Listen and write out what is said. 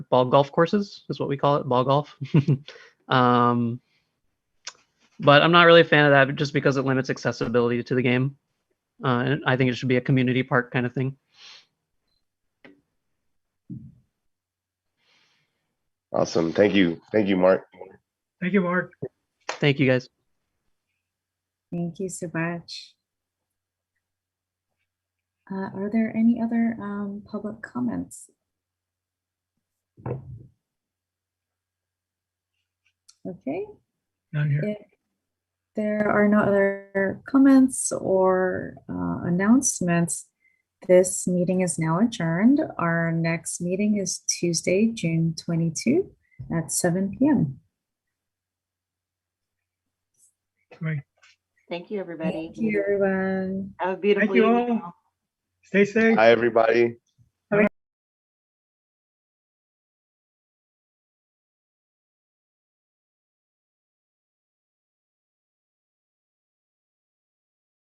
ball golf courses is what we call it, ball golf. um, but I'm not really a fan of that just because it limits accessibility to the game. Uh, and I think it should be a community park kind of thing. Awesome. Thank you. Thank you, Mark. Thank you, Mark. Thank you guys. Thank you so much. Uh, Are there any other um, public comments? Okay, Down here. if there are no other comments or uh, announcements, this meeting is now adjourned. Our next meeting is Tuesday, June 22 at 7 PM. Great. Thank you, everybody. Thank you, everyone. Have a beautiful you evening. all. Stay safe. Hi, everybody.